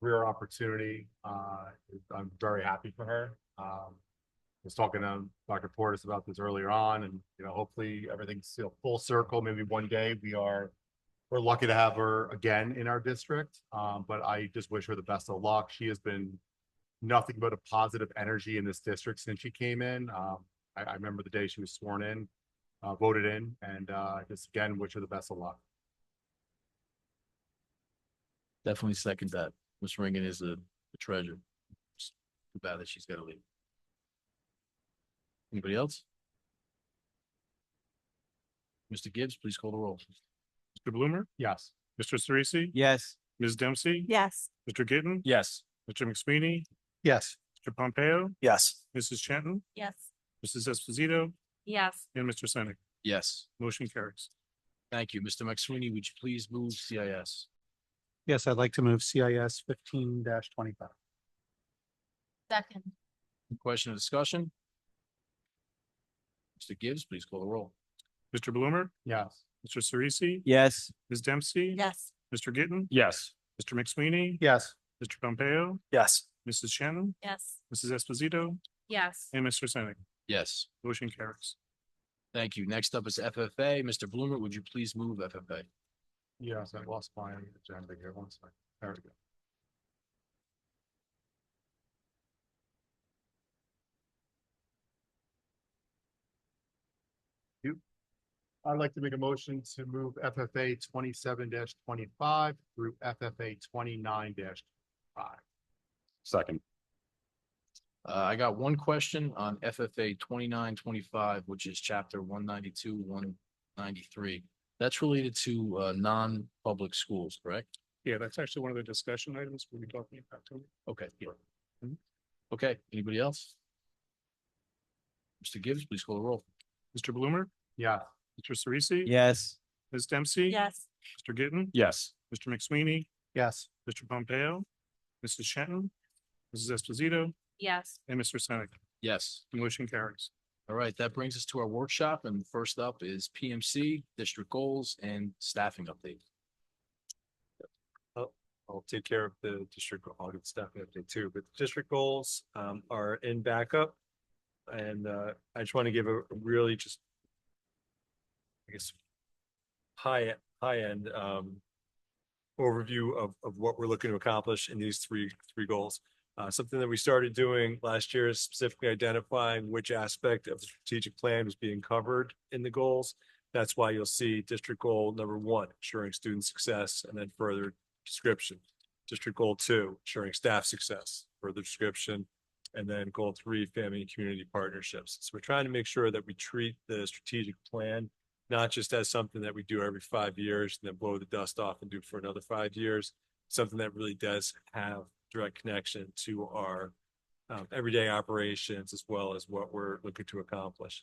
career opportunity. Uh, I'm very happy for her. Um, was talking to Dr. Portis about this earlier on and, you know, hopefully everything's you know, full circle. Maybe one day we are, we're lucky to have her again in our district. Um, but I just wish her the best of luck. She has been nothing but a positive energy in this district since she came in. Um, I, I remember the day she was sworn in, uh, voted in and, uh, just again, wish her the best of luck. Definitely second that. Miss Ringen is a a treasure. It's Too bad that she's gotta leave. Anybody else? Mr. Gibbs, please call the roll. Mr. Bloomer, Yes. Mr. Cerisi, Yes. Ms. Dempsey, Yes, Mr. Gitten, Yes. Mr. McSweeney, Yes. Mr. Pompeo, Yes. Mrs. Chanton, yes, Mrs. Esposito, yes, and Mr. Senick. Yes, Motion carries. thank you. Mr. McSweeney, would you please move CIS? Yes, I'd like to move CIS fifteen twenty-five. second, Question or discussion? Mr. Gibbs, please call the roll. Mr. Bloomer, Yes. Mr. Cerisi, Yes. Ms. Dempsey, yes, Mr. Gitten, Yes. Mr. McSweeney, Yes. Mr. Pompeo, Yes. Mrs. Chanton, yes, Mrs. Esposito, yes, and Mr. Senick. Yes, Motion carries. thank you. Next up is FFA. Mr. Bloomer, would you please move FFA? Yes, I lost my agenda here. One second. There we go. You. I'd like to make a motion to move FFA twenty-seven twenty-five through FFA twenty-nine five. Second, Uh, I got one question on FFA twenty-nine twenty-five, which is chapter one ninety-two, one ninety-three. That's related to, uh, non-public schools, correct? Yeah, that's actually one of the discussion items we'll be talking about. too. Okay. Okay, anybody else? Mr. Gibbs, please call the roll. Mr. Bloomer, Yeah, Mr. Cerisi. Yes. Ms. Dempsey. yes, Mr. Gitten, yes, Mr. McSweeney, Yes. Mr. Pompeo, Mrs. Shenton, Mrs. Esposito, yes, and Mr. Senick. Yes. The motion carries. All right, that brings us to our workshop, and first up is PMC, district goals, and staffing update. I'll take care of the district, goal- I'll get staff update too, but the district goals um are in backup. And uh I just want to give a really just. I guess. High, high end um. Overview of of what we're looking to accomplish in these three, three goals. Uh, something that we started doing last year is specifically identifying which aspect of the strategic plan was being covered in the goals. That's why you'll see district goal number one, ensuring student success, and then further description. District goal two, ensuring staff success, further description. And then goal three, family and community partnerships. So we're trying to make sure that we treat the strategic plan not just as something that we do every five years and then blow the dust off and do for another five years. Something that really does have direct connection to our um, everyday operations as well as what we're looking to accomplish.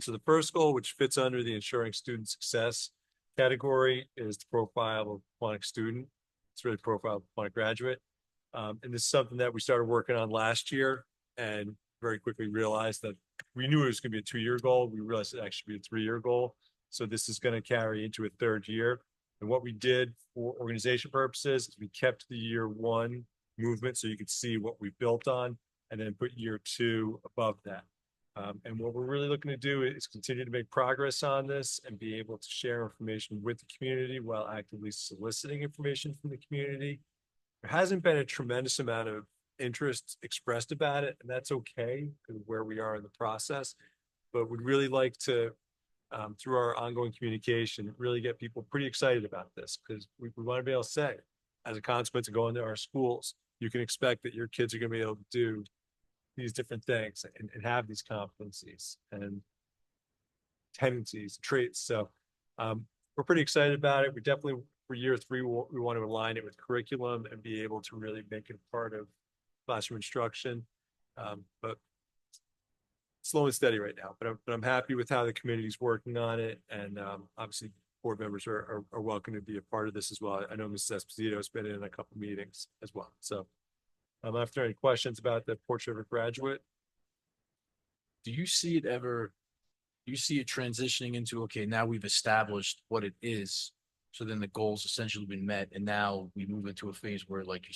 So the first goal, which fits under the ensuring student success, category is the profile of a Quantic student. It's really profile of a Quantic graduate. Um, and this is something that we started working on last year and very quickly realized that we knew it was gonna be a two-year goal. We realized it actually be a three-year goal. So this is gonna carry into a third year. And what we did for organization purposes is we kept the year one movement so you could see what we built on and then put year two above that. Um, and what we're really looking to do is continue to make progress on this and be able to share information with the community while actively soliciting information from the community. There hasn't been a tremendous amount of interest expressed about it, and that's okay, because where we are in the process. But we'd really like to, um, through our ongoing communication, really get people pretty excited about this, because we, we want to be able to say, as a consequence of going to our schools, you can expect that your kids are gonna be able to do these different things and, and have these competencies and tendencies, traits. So um, we're pretty excited about it. We definitely, for year three, we'll- we want to align it with curriculum and be able to really make it part of classroom instruction. Um, but slow and steady right now, but I'm, but I'm happy with how the committee's working on it. And um, obviously, board members are, are, are welcome to be a part of this as well. I know Mrs. Esposito's been in a couple meetings as well. So um, if there are any questions about the portrait of a graduate, Do you see it ever, do you see it transitioning into, okay, now we've established what it is, So then the goal's essentially been met and now we move into a phase where, like you